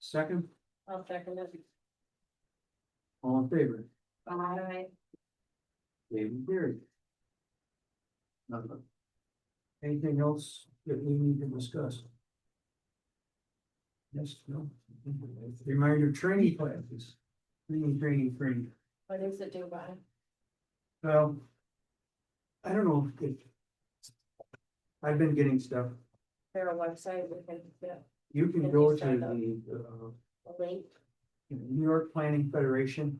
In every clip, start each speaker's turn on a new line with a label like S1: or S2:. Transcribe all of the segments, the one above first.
S1: Second,
S2: I'll second it.
S1: all in favor,
S2: Aye.
S1: David Gary. Nothing. Anything else that we need to discuss? Yes, no. Reminder, training classes, training, training, training.
S2: What is it do by?
S1: Well. I don't know if. I've been getting stuff.
S2: Their website, we can get
S1: You can
S2: Can
S1: go
S2: you
S1: to
S2: sign up?
S1: the, uh,
S2: a link.
S1: New York Planning Federation.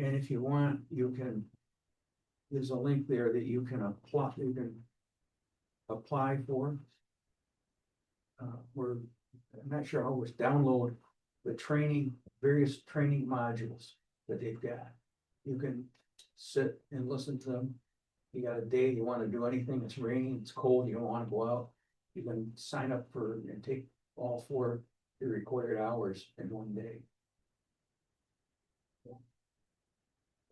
S1: And if you want, you can. There's a link there that you can apply, you can. Apply for. Uh, we're, I'm not sure how it's download the training, various training modules that they've got. You can sit and listen to them. You got a day, you wanna do anything, it's raining, it's cold, you don't wanna go out. You can sign up for and take all four, the required hours in one day.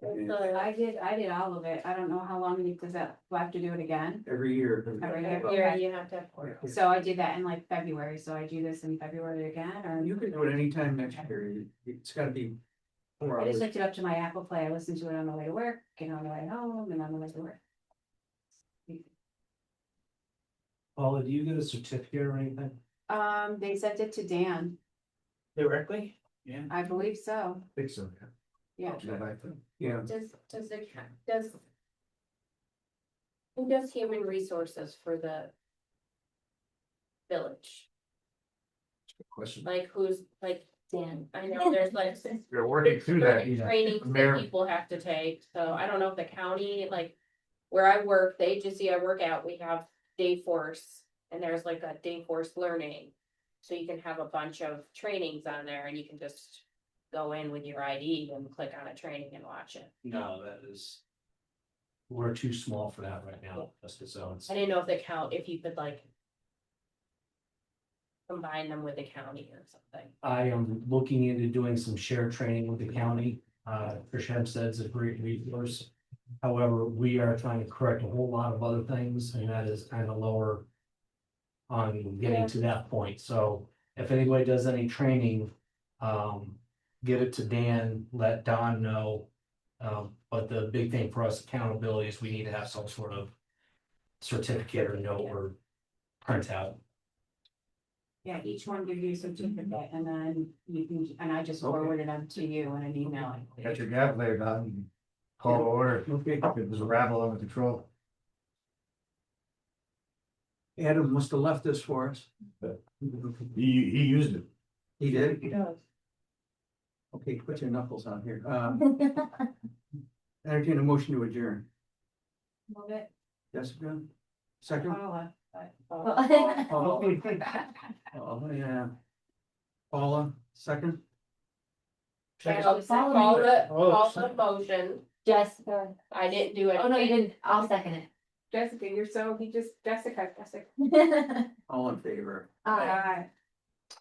S1: And
S3: I did, I did all of it. I don't know how long, it- does that, we'll have to do it again?
S1: Every year,
S3: Every
S2: Every
S3: year.
S2: year you have to have
S1: Yeah.
S2: courses.
S3: So I did that in like February, so I do this in February again, or
S1: you can do it anytime next year, it's gotta be. Four
S3: I just
S1: hours,
S3: looked it up to my Apple Play. I listened to it on the way to work, and on the way home, and on the way to work.
S4: Paula, do you get a certificate or anything?
S3: Um, they sent it to Dan.
S4: Directly? Yeah.
S3: I believe so.
S4: Think so.
S3: Yeah.
S1: yeah,
S2: Does, does the, ca- does. Who does human resources for the? Village,
S4: Question.
S2: like who's, like, Dan, I know there's like.
S4: You're working through that, you know.
S2: Trainings that
S4: Mayor.
S2: people have to take, so I don't know if the county, like. Where I work, the agency I work at, we have day force, and there's like a day force learning. So you can have a bunch of trainings on there and you can just go in with your ID and click on a training and watch it.
S4: No, that is. We're too small for that right now, just its own.
S2: I didn't know if the count, if you could like. Combine them with the county or something.
S4: I am looking into doing some shared training with the county. Uh, Trish Hempstead's a great resource. However, we are trying to correct a whole lot of other things, and that is kind of lower on
S2: Yeah.
S4: getting to that point. So if anybody does any training, um, get it to Dan, let Don know. Um, but the big thing for us accountability is we need to have some sort of certificate or note or printout.
S3: Yeah, each one gives you a certificate, and then you can, and I just
S1: Okay.
S3: forwarded them to you in an email.
S5: Got your gavel there, Don. You can Call to order.
S1: okay,
S5: It was a rabble under control.
S1: Adam must have left this for us.
S5: He, he used it.
S1: He did,
S2: does.
S1: okay, put your knuckles on here, uh. Entertain a motion to adjourn,
S3: Love it.
S1: Jessica, second,
S3: Paula, but-
S1: oh, oh, yeah. Paula, second,
S2: I'll
S6: Follow
S2: call
S6: me.
S2: the,
S4: Oh,
S2: call the
S4: sorry.
S2: motion.
S6: Jessica,
S2: I didn't do it.
S6: oh no, you didn't, I'll second
S3: Jessica, you're so, he just, Jessica, Jessica.
S6: it.
S1: all in favor,
S6: Aye.
S3: Aye.